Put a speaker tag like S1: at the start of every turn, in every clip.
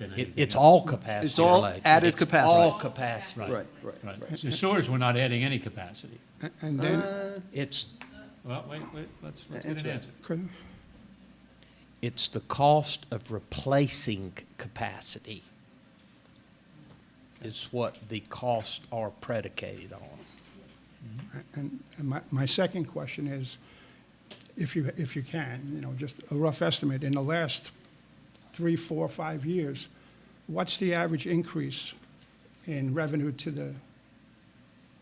S1: than
S2: It,
S1: anything
S2: it's
S1: else.
S2: all capacity
S3: It's all
S2: related.
S3: added
S2: It's
S3: capacity.
S2: All capacity.
S3: Right, right, right.
S1: Right. The sewers, we're not adding any capacity.
S4: And then,
S2: It's,
S1: Well, wait, wait, let's, let's get an
S3: Answer.
S1: answer.
S4: could-
S2: it's the cost of replacing capacity is what the costs are predicated on.
S4: and and my, my second question is, if you, if you can, you know, just a rough estimate, in the last three, four, five years, what's the average increase in revenue to the,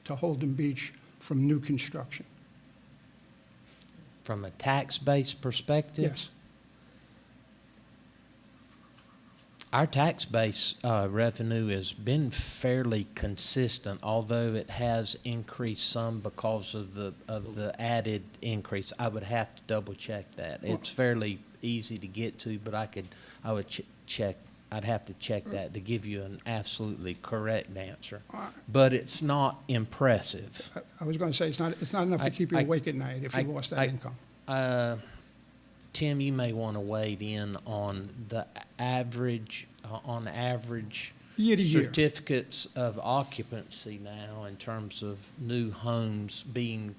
S4: to Holden Beach from new construction?
S2: From a tax-based perspective?
S4: Yes,
S2: Our tax base uh, revenue has been fairly consistent, although it has increased some because of the, of the added increase. I would have to double check that. It's fairly easy to get to, but I could, I would ch- check, I'd have to check that to give you an absolutely correct answer. But it's not impressive.
S4: I- I was going to say, it's not, it's not enough
S2: I-
S4: to keep you
S2: I-
S4: awake at night if
S2: I-
S4: you lost
S2: I-
S4: that income.
S2: Uh, Tim, you may want to wade in on the average, uh, on average.
S4: Year to year.
S2: Certificates of occupancy now in terms of new homes being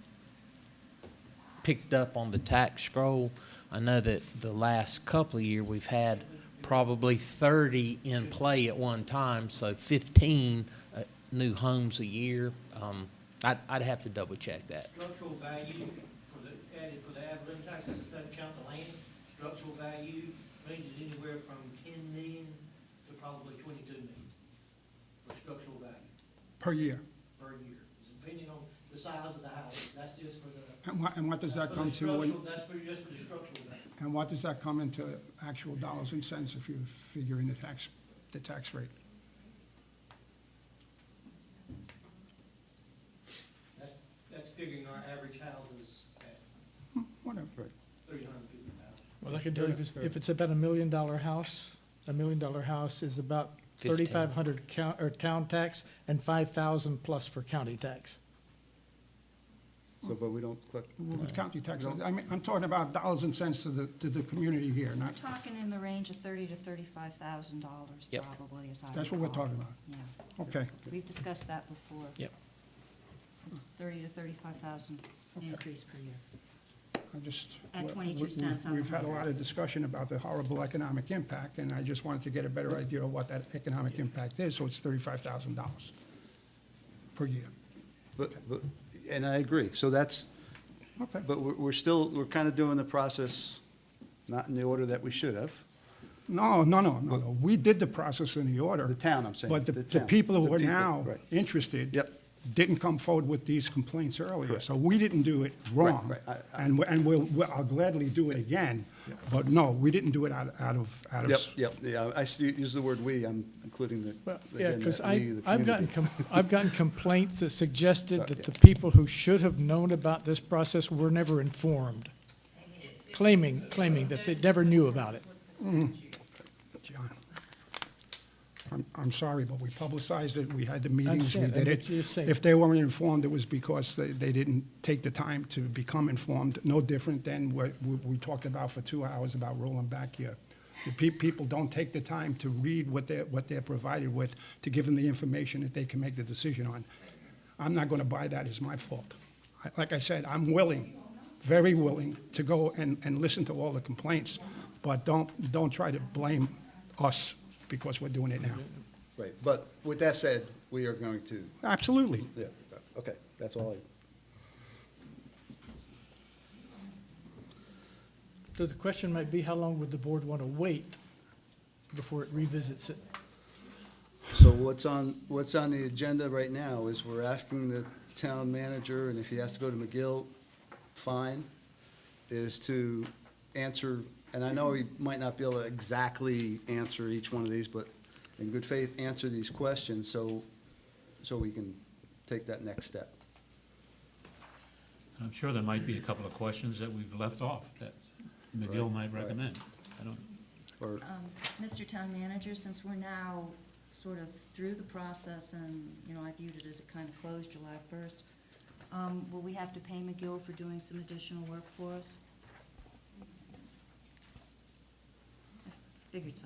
S2: picked up on the tax scroll. I know that the last couple of year, we've had probably 30 in play at one time, so 15 uh, new homes a year. Um, I'd, I'd have to double check that.
S5: Structural value for the, added for the ad valorem tax, that's- that doesn't count the land. Structural value ranges anywhere from ten million to probably twenty-two million for structural value
S4: Per year.
S5: per year. It's depending on the size of the house. That's just for the.
S4: And what, and what does
S5: that's
S4: that
S5: for the
S4: come to, when-
S5: structural- That's for, just for the structural value.
S4: and what does that come into actual dollars and cents if you figure in the tax, the tax rate?
S5: That's, that's figuring our average houses at
S4: Whatever.
S5: three hundred and fifty thousand.
S6: Well, I can tell you, if it's, if it's about a million dollar house, a million dollar house is about
S2: Fifteen.
S6: thirty-five hundred count, or town tax and five thousand plus for county tax.
S3: So, but we don't collect.
S4: Well, with county tax, I mean, I'm talking about dollars and cents to the, to the community here, not,
S7: Talking in the range of thirty to thirty-five thousand dollars
S2: Yep.
S7: probably, as I
S4: that's what we're
S7: recall.
S4: talking about.
S7: Yeah,
S4: Okay,
S7: we've discussed that before.
S2: Yep.
S7: It's Thirty to thirty-five thousand increase per year.
S4: I just.
S7: At
S4: we-
S7: 22
S4: we-
S7: cents on the
S4: We've had a
S7: hundred.
S4: lot of discussion about the horrible economic impact, and I just wanted to get a better idea of what that economic impact is, so it's thirty-five thousand dollars per year.
S3: But, but, and I agree, so that's,
S4: Okay.
S3: but we're, we're still, we're kind of doing the process, not in the order that we should have.
S4: No, no, no, no, no, we did the process in the order.
S3: The town, I'm saying,
S4: But the,
S3: the
S4: the
S3: town,
S4: people
S3: the
S4: who are
S3: people,
S4: now
S3: right.
S4: interested.
S3: Yep.
S4: Didn't come forward with these complaints earlier,
S3: Correct.
S4: so we didn't do it wrong.
S3: right. I- I-
S4: And, we- and we'll, we'll- I'll gladly do it again, but no, we didn't do it out, out of, out of.
S3: Yep,
S4: s-
S3: yep, yeah, I s- use the word "we," I'm including the,
S6: Well, yeah,
S3: again,
S6: because
S3: that we,
S6: I,
S3: the
S6: I've gotten,
S3: community.
S6: com- I've gotten complaints that suggested
S3: Sorry,
S6: that
S3: yeah.
S6: the people who should have known about this process were never informed. Claiming, claiming that they never knew about it.
S4: John, I'm, I'm sorry, but we publicized it, we had the meetings, we
S6: understand,
S4: did
S6: I
S4: it.
S6: get you saying.
S4: If they weren't informed, it was because they, they didn't take the time to become informed, no different than what we, we talked about for two hours about rolling back here. The pe- people don't take the time to read what they're, what they're provided with, to give them the information that they can make the decision on. I'm not gonna buy that as my fault. I- Like I said, I'm willing, very willing, to go and, and listen to all the complaints, but don't, don't try to blame us because we're doing it now.
S3: Right, but with that said, we are going to,
S4: Absolutely.
S3: yeah, okay, that's all I.
S6: So the question might be, how long would the board want to wait before it revisits it?
S3: So what's on, what's on the agenda right now is we're asking the town manager, and if he has to go to McGill, fine, is to answer, and I know he might not be able to exactly answer each one of these, but in good faith, answer these questions so, so we can take that next step.
S1: I'm sure there might be a couple of questions that we've left off that McGill might recommend. I don't,
S3: Or,
S7: Mr. Um, Town Manager, since we're now sort of through the process and, you know, I viewed it as it kind of closed July first, um, will we have to pay McGill for doing some additional work for us? I Figured so.